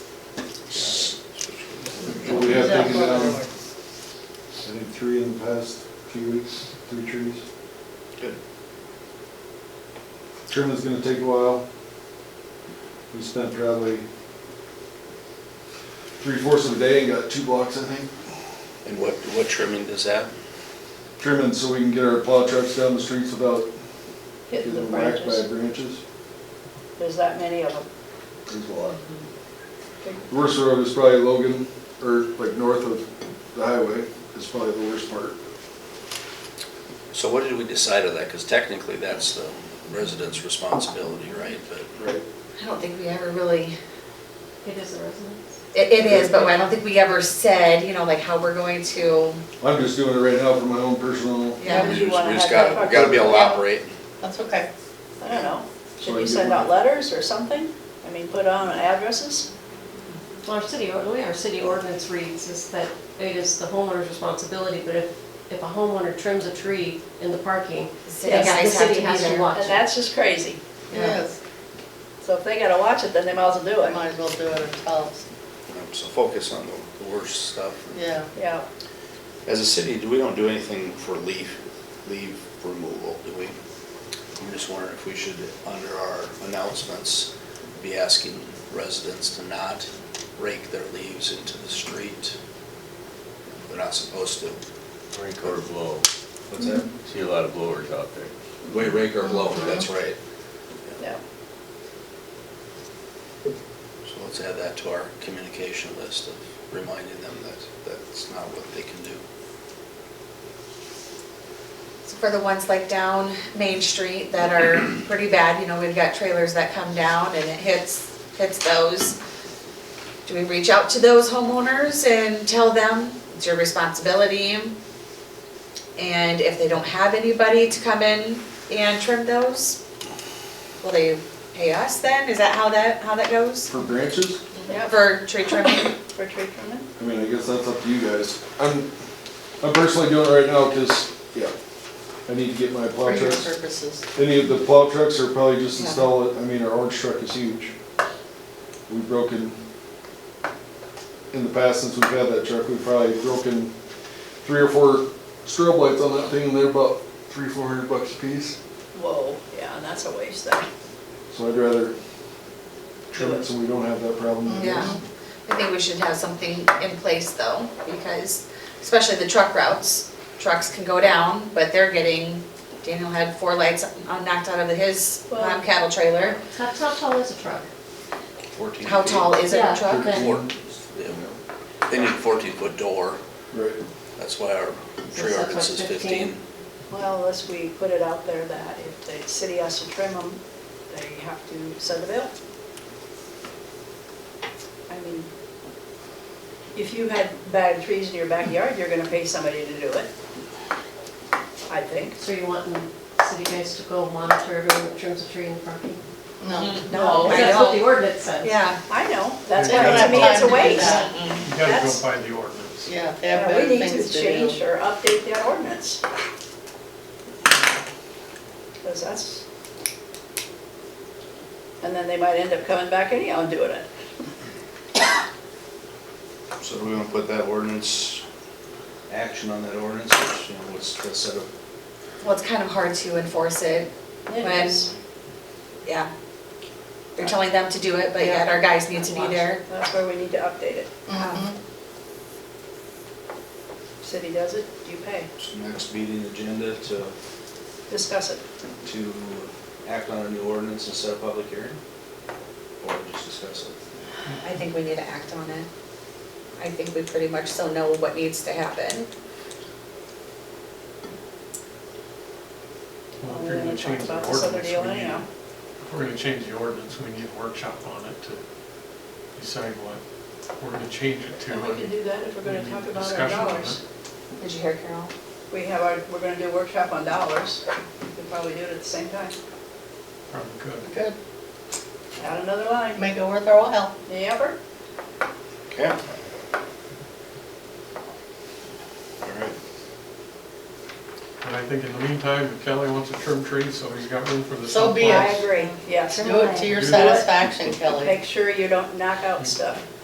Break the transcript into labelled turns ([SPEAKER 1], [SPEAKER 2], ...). [SPEAKER 1] the past few weeks, three trees.
[SPEAKER 2] Good.
[SPEAKER 1] Trimming's gonna take a while. We spent probably three fourths of the day and got two blocks, I think,
[SPEAKER 2] And what, what trimming does that?
[SPEAKER 1] trimming so we can get our plow trucks down the streets without
[SPEAKER 3] Hitting the
[SPEAKER 1] getting whacked by
[SPEAKER 3] branches,
[SPEAKER 1] branches.
[SPEAKER 3] there's that many of them.
[SPEAKER 1] There's a lot. The worst road is probably Logan, or like north of the highway, is probably the worst part.
[SPEAKER 2] So what did we decide on that? Because technically, that's the resident's responsibility, right? But
[SPEAKER 1] Right.
[SPEAKER 4] I don't think we ever really,
[SPEAKER 5] It is a residence.
[SPEAKER 4] it, it is, but I don't think we ever said, you know, like how we're going to,
[SPEAKER 1] I'm just doing it right now for my own personal,
[SPEAKER 4] Yeah,
[SPEAKER 2] we
[SPEAKER 3] Would you
[SPEAKER 2] just,
[SPEAKER 3] wanna
[SPEAKER 2] we just
[SPEAKER 3] have that
[SPEAKER 2] gotta, we gotta be able to
[SPEAKER 3] part- Yeah,
[SPEAKER 2] operate.
[SPEAKER 3] That's okay. I don't know, should
[SPEAKER 1] So
[SPEAKER 3] we
[SPEAKER 1] you
[SPEAKER 3] send
[SPEAKER 1] do-
[SPEAKER 3] out letters or something? I mean, put on addresses?
[SPEAKER 5] Well, our city, or- the way our city ordinance reads is that it is the homeowner's responsibility, but if, if a homeowner trims a tree in the parking,
[SPEAKER 4] the city
[SPEAKER 5] they got- the
[SPEAKER 4] guys have to
[SPEAKER 5] city
[SPEAKER 4] be
[SPEAKER 5] has to
[SPEAKER 4] there.
[SPEAKER 5] watch
[SPEAKER 3] And
[SPEAKER 5] it.
[SPEAKER 3] that's just crazy.
[SPEAKER 6] Yes,
[SPEAKER 3] So if they gotta watch it, then they might as well do
[SPEAKER 6] they
[SPEAKER 3] it.
[SPEAKER 6] might as well do it ourselves,
[SPEAKER 2] So focus on the worst stuff.
[SPEAKER 6] yeah.
[SPEAKER 3] Yeah,
[SPEAKER 2] As a city, do we don't do anything for leaf, leaf removal, do we? I'm just wondering if we should, under our announcements, be asking residents to not rake their leaves into the street. They're not supposed to.
[SPEAKER 7] Rake or blow.
[SPEAKER 2] What's that?
[SPEAKER 7] See a lot of blowers out there.
[SPEAKER 2] Wait, rake or blow, that's right.
[SPEAKER 3] yeah.
[SPEAKER 2] So let's add that to our communication list of reminding them that that's not what they can do.
[SPEAKER 4] So For the ones like down Main Street that are pretty bad, you know, we've got trailers that come down and it hits, hits those. Do we reach out to those homeowners and tell them it's your responsibility? And if they don't have anybody to come in and trim those, will they pay us then? Is that how that, how that goes?
[SPEAKER 1] for branches,
[SPEAKER 3] Yeah,
[SPEAKER 4] For tree trimming?
[SPEAKER 3] for tree trimming?
[SPEAKER 1] I mean, I guess that's up to you guys. I'm, I'm personally doing it right now because, yeah, I need to get my
[SPEAKER 6] For
[SPEAKER 1] plow
[SPEAKER 6] your
[SPEAKER 1] trucks.
[SPEAKER 6] purposes.
[SPEAKER 1] Any of the plow trucks are probably just
[SPEAKER 4] Yeah.
[SPEAKER 1] installed, I mean, our orange truck is huge. We've broken, in the past since we've had that truck, we've probably broken three or four strobe lights on that thing and they're about three, four hundred bucks a piece.
[SPEAKER 3] Whoa, yeah, and that's a waste then.
[SPEAKER 1] So I'd rather trim it so we don't have that problem. I
[SPEAKER 4] Yeah,
[SPEAKER 1] guess.
[SPEAKER 4] I think we should have something in place though, because especially the truck routes, trucks can go down, but they're getting, Daniel had four lights uh, knocked out of his um, cattle trailer.
[SPEAKER 5] How, how tall is a truck?
[SPEAKER 2] Fourteen
[SPEAKER 4] How
[SPEAKER 2] feet.
[SPEAKER 4] tall is it,
[SPEAKER 5] Yeah.
[SPEAKER 4] a truck?
[SPEAKER 5] Okay.
[SPEAKER 2] Four. Yeah. They need a fourteen foot door,
[SPEAKER 1] Right.
[SPEAKER 2] that's why our tree
[SPEAKER 5] So that's
[SPEAKER 2] ordinance
[SPEAKER 5] what,
[SPEAKER 2] is fifteen.
[SPEAKER 3] Well, unless we put it out there that if the city has to trim them, they have to send a bill. I mean, if you had bad trees in your backyard, you're gonna pay somebody to do it. I think.
[SPEAKER 5] So you want the city guys to go monitor everyone that trims a tree in the parking?
[SPEAKER 6] No.
[SPEAKER 4] No, Oh, I
[SPEAKER 5] That's what the
[SPEAKER 4] don't.
[SPEAKER 5] ordinance says.
[SPEAKER 4] Yeah,
[SPEAKER 3] I know, that's
[SPEAKER 8] Yeah,
[SPEAKER 3] why,
[SPEAKER 8] that's
[SPEAKER 3] I mean, it's
[SPEAKER 6] time
[SPEAKER 3] a
[SPEAKER 6] to do
[SPEAKER 3] waste.
[SPEAKER 6] that.
[SPEAKER 8] You gotta
[SPEAKER 3] That's-
[SPEAKER 8] go by the ordinance.
[SPEAKER 6] Yeah, they have
[SPEAKER 3] Yeah, We
[SPEAKER 6] better
[SPEAKER 3] need to
[SPEAKER 6] things to
[SPEAKER 3] change
[SPEAKER 6] do.
[SPEAKER 3] or update that ordinance. Because that's, and then they might end up coming back anyhow and doing it.
[SPEAKER 2] So do we wanna put that ordinance, action on that ordinance, which, you know, what's the set of
[SPEAKER 4] well, it's kind of hard to enforce it, When-
[SPEAKER 3] Yes.
[SPEAKER 4] yeah. They're telling them to do it, but yet our guys need to be there. Um,
[SPEAKER 3] That's where we need to update it.
[SPEAKER 6] Mhm.
[SPEAKER 3] City does it, you pay.
[SPEAKER 2] next meeting agenda to,
[SPEAKER 3] Discuss it.
[SPEAKER 2] to act on a new ordinance and set a public hearing? Or just discuss it?
[SPEAKER 4] I think we need to act on it. I think we pretty much still know what needs to happen.
[SPEAKER 8] Well, if
[SPEAKER 3] We're
[SPEAKER 8] you're
[SPEAKER 3] gonna
[SPEAKER 8] gonna
[SPEAKER 3] talk
[SPEAKER 8] change
[SPEAKER 3] about
[SPEAKER 8] the
[SPEAKER 3] this other
[SPEAKER 8] ordinance,
[SPEAKER 3] deal
[SPEAKER 8] we need,
[SPEAKER 3] anyhow.
[SPEAKER 8] if we're gonna change the ordinance, we need a workshop on it to decide what we're gonna change it to. uh,
[SPEAKER 3] And we can do that if we're gonna talk about our
[SPEAKER 8] Discussion on
[SPEAKER 3] dollars.
[SPEAKER 4] Did you hear Carol?
[SPEAKER 3] We have our, we're gonna do a workshop on dollars. We could probably do it at the same time.
[SPEAKER 8] Probably good.
[SPEAKER 6] Good,
[SPEAKER 3] Add another line.
[SPEAKER 6] make it worth our while.
[SPEAKER 3] Yep.
[SPEAKER 2] Okay. All right.
[SPEAKER 8] And I think in the meantime, if Kelly wants to trim trees, so he's got room for the.
[SPEAKER 6] So be
[SPEAKER 3] I
[SPEAKER 8] sunflowers.
[SPEAKER 6] it.
[SPEAKER 3] agree, yes.
[SPEAKER 6] Do it to your
[SPEAKER 8] Do it.
[SPEAKER 6] satisfaction, Kelly.
[SPEAKER 3] Make sure you don't knock out stuff.